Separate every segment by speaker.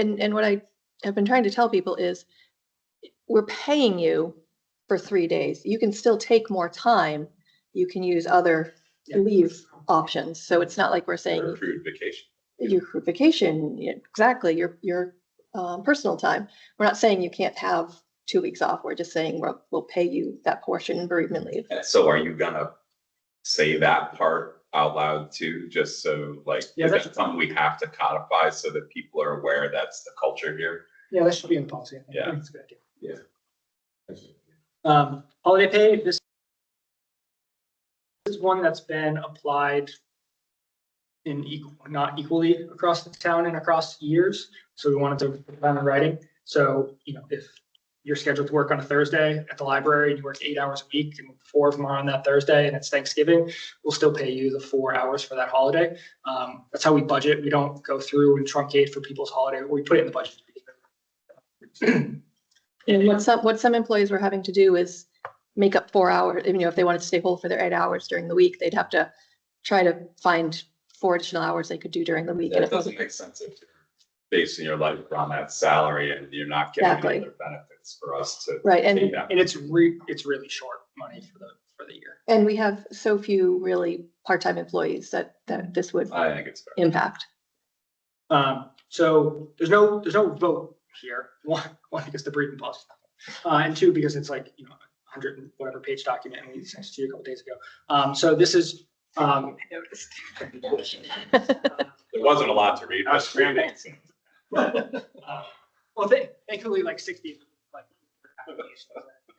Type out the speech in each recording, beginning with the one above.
Speaker 1: and, and what I have been trying to tell people is we're paying you for three days. You can still take more time. You can use other
Speaker 2: Yeah.
Speaker 1: leave options. So it's not like we're
Speaker 3: or
Speaker 1: saying
Speaker 3: accrued vacation.
Speaker 1: your cr- vacation, yeah, exactly, your, your um, personal time. We're not saying you can't have two weeks off. We're just saying we'll, we'll pay you that portion in bereavement leave.
Speaker 3: And so are you gonna say that part out loud too, just so like,
Speaker 2: Yeah,
Speaker 3: is
Speaker 2: that's-
Speaker 3: that something we have to codify so that people are aware that's the culture here?
Speaker 2: Yeah, that should be in policy. I think. I
Speaker 3: Yeah.
Speaker 2: think it's a good idea.
Speaker 3: It's
Speaker 2: Um, holiday pay, this this is one that's been applied in equal, not equally across the town and across years. So we wanted to put it down in writing. So, you know, if you're scheduled to work on a Thursday at the library and you work eight hours a week and four of them are on that Thursday and it's Thanksgiving, we'll still pay you the four hours for that holiday. Um, that's how we budget. We don't go through and truncate for people's holiday. We put it in the budget.
Speaker 1: And what some, what some employees were having to do is make up four hours, you know, if they wanted to stay whole for their eight hours during the week, they'd have to try to find four additional hours they could do during the week. And
Speaker 3: It
Speaker 1: it wasn't,
Speaker 3: doesn't make sense if you're basing your life on that salary and you're not getting
Speaker 1: Exactly.
Speaker 3: any other benefits for us to
Speaker 1: right,
Speaker 3: pay
Speaker 1: and,
Speaker 3: that.
Speaker 2: And it's re, it's really short money for the, for the year.
Speaker 1: and we have so few really part-time employees that, that this would
Speaker 3: I think it's fair.
Speaker 1: impact.
Speaker 2: Um, so there's no, there's no vote here. One, one, because the breeding policy. Uh, and two, because it's like, you know, a hundred and whatever page document and we sent it to you a couple days ago. Um, so this is, um,
Speaker 3: There wasn't a lot to read. but-
Speaker 2: Uh, Well, they, thankfully, like sixty, like. applications.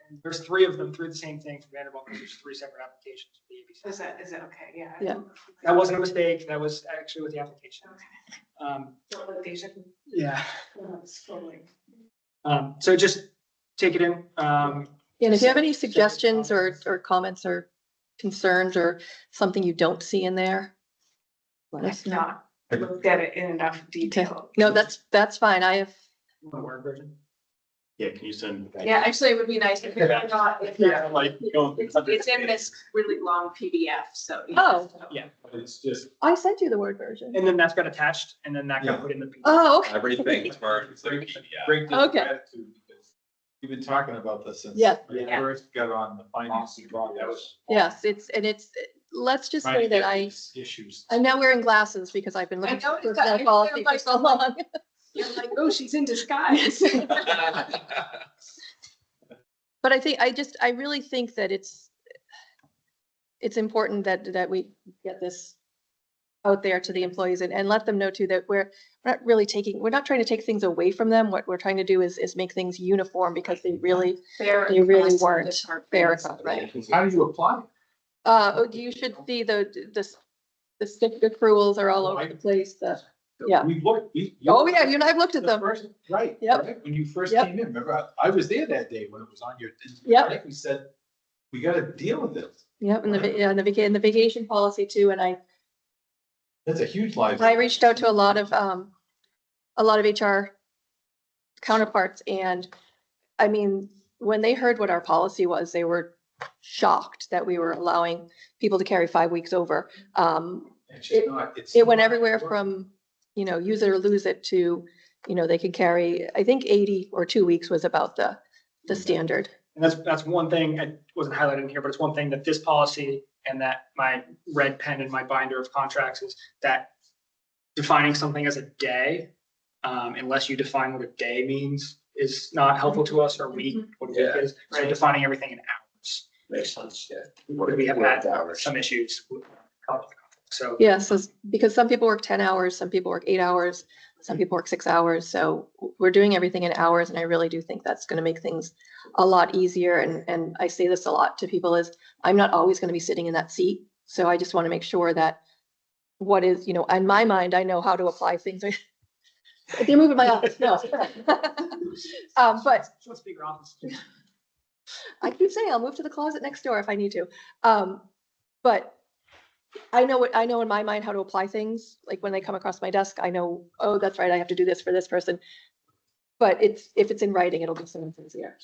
Speaker 2: And There's three of them through the same thing for Vanderbilt, because there's three separate applications. for the ABC.
Speaker 4: Is that, is it okay? Yeah.
Speaker 1: Yeah.
Speaker 2: That wasn't a mistake, that was actually with the application. Um,
Speaker 4: Don't let these, uh,
Speaker 2: yeah,
Speaker 4: scrolling.
Speaker 2: um, so just take it in, um,
Speaker 1: And if you have any
Speaker 2: Second
Speaker 1: suggestions or,
Speaker 2: comments.
Speaker 1: or comments or concerns or something you don't see in there, let us
Speaker 4: If
Speaker 1: know.
Speaker 4: not, looked at it in enough detail.
Speaker 1: No, that's, that's fine. I have,
Speaker 2: the word version.
Speaker 5: Yeah, can you send?
Speaker 4: Yeah, actually, it would be nice if it's not, if
Speaker 5: Yeah,
Speaker 4: that-
Speaker 5: like. you don't-
Speaker 4: it's, it's in this really long PDF, so. you
Speaker 1: Oh.
Speaker 4: know,
Speaker 2: Yeah.
Speaker 5: It's just
Speaker 1: I sent you the Word version.
Speaker 2: And then that's got attached and then that got
Speaker 5: Yeah.
Speaker 2: put in the. PDF.
Speaker 1: Oh, okay.
Speaker 3: Everything is marked. It's like
Speaker 5: Great.
Speaker 3: PDF.
Speaker 5: great to
Speaker 1: Okay.
Speaker 5: add to because You've been talking about this since.
Speaker 1: Yeah.
Speaker 5: we
Speaker 4: Yeah.
Speaker 5: First got on the finance. committee. That was
Speaker 1: Yes, it's, and it's, let's just
Speaker 5: trying
Speaker 1: say
Speaker 5: to
Speaker 1: that
Speaker 5: get
Speaker 1: I,
Speaker 5: these Issues.
Speaker 1: I'm now wearing glasses because I've been
Speaker 4: I
Speaker 1: looking
Speaker 4: know,
Speaker 1: for
Speaker 4: it's got-
Speaker 1: that
Speaker 4: it
Speaker 1: policy for
Speaker 4: feels
Speaker 1: so long.
Speaker 4: You're like, oh, she's in disguise.
Speaker 1: But I think, I just, I really think that it's, it's important that, that we get this out there to the employees and, and let them know too that we're, we're not really taking, we're not trying to take things away from them. What we're trying to do is, is make things uniform because they really,
Speaker 4: Fair
Speaker 1: They really
Speaker 4: across the
Speaker 1: weren't
Speaker 4: departments.
Speaker 1: fair across, right?
Speaker 5: How do you apply?
Speaker 1: Uh, oh, you should see the, the, the sick accruals are
Speaker 4: Oh,
Speaker 1: all over the place, the, Yeah.
Speaker 5: We looked. we- you-
Speaker 1: oh yeah, you and I have looked at
Speaker 5: The
Speaker 1: them.
Speaker 5: first, right.
Speaker 1: Yep.
Speaker 5: right, When you first
Speaker 1: Yep.
Speaker 5: came in, remember, I- I was there that day when it was on your.
Speaker 1: Yep.
Speaker 5: right, We said, we gotta deal with this.
Speaker 1: Yep, and the, va- yeah, and the vaca, and the vacation policy too, and I,
Speaker 5: That's a huge life.
Speaker 1: I reached out to a lot of, um, a lot of HR counterparts and, I mean, when they heard what our policy was, they were shocked that we were allowing people to carry five weeks over. Um,
Speaker 5: It's just
Speaker 1: it-
Speaker 5: not- it's
Speaker 1: it went
Speaker 5: not-
Speaker 1: everywhere from, you know, use it or lose it to, you know, they could carry, I think eighty or two weeks was about the, the standard.
Speaker 2: And that's, that's one thing, it wasn't highlighted in here, but it's one thing that this policy and that my red pen and my binder of contracts is that defining something as a day, um, unless you define what a day means, is not helpful to us or week,
Speaker 1: Mm-hmm.
Speaker 2: what a week is. So
Speaker 4: Right.
Speaker 2: defining everything in hours,
Speaker 5: Makes sense, yeah.
Speaker 2: we have had
Speaker 5: hours.
Speaker 2: some issues. with- So
Speaker 1: Yeah, so s- because some people work ten hours, some people work eight hours, some people work six hours, so w- we're doing everything in hours, and I really do think that's gonna make things a lot easier, and, and I say this a lot to people is, I'm not always gonna be sitting in that seat, so I just wanna make sure that what is, you know, in my mind, I know how to apply things. They're moving my office, no. Um, but
Speaker 2: Let's be honest.
Speaker 1: I keep saying I'll move to the closet next door if I need to. Um, but I know what, I know in my mind how to apply things. Like when they come across my desk, I know, oh, that's right, I have to do this for this person. But it's, if it's in writing, it'll be so much easier.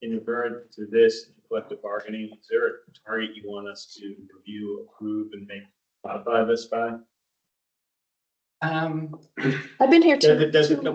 Speaker 6: in regard to this collective bargaining, is there a target you want us to review, approve, and make modify this by?
Speaker 7: Um,
Speaker 8: I've been here too.
Speaker 1: Does it, does it,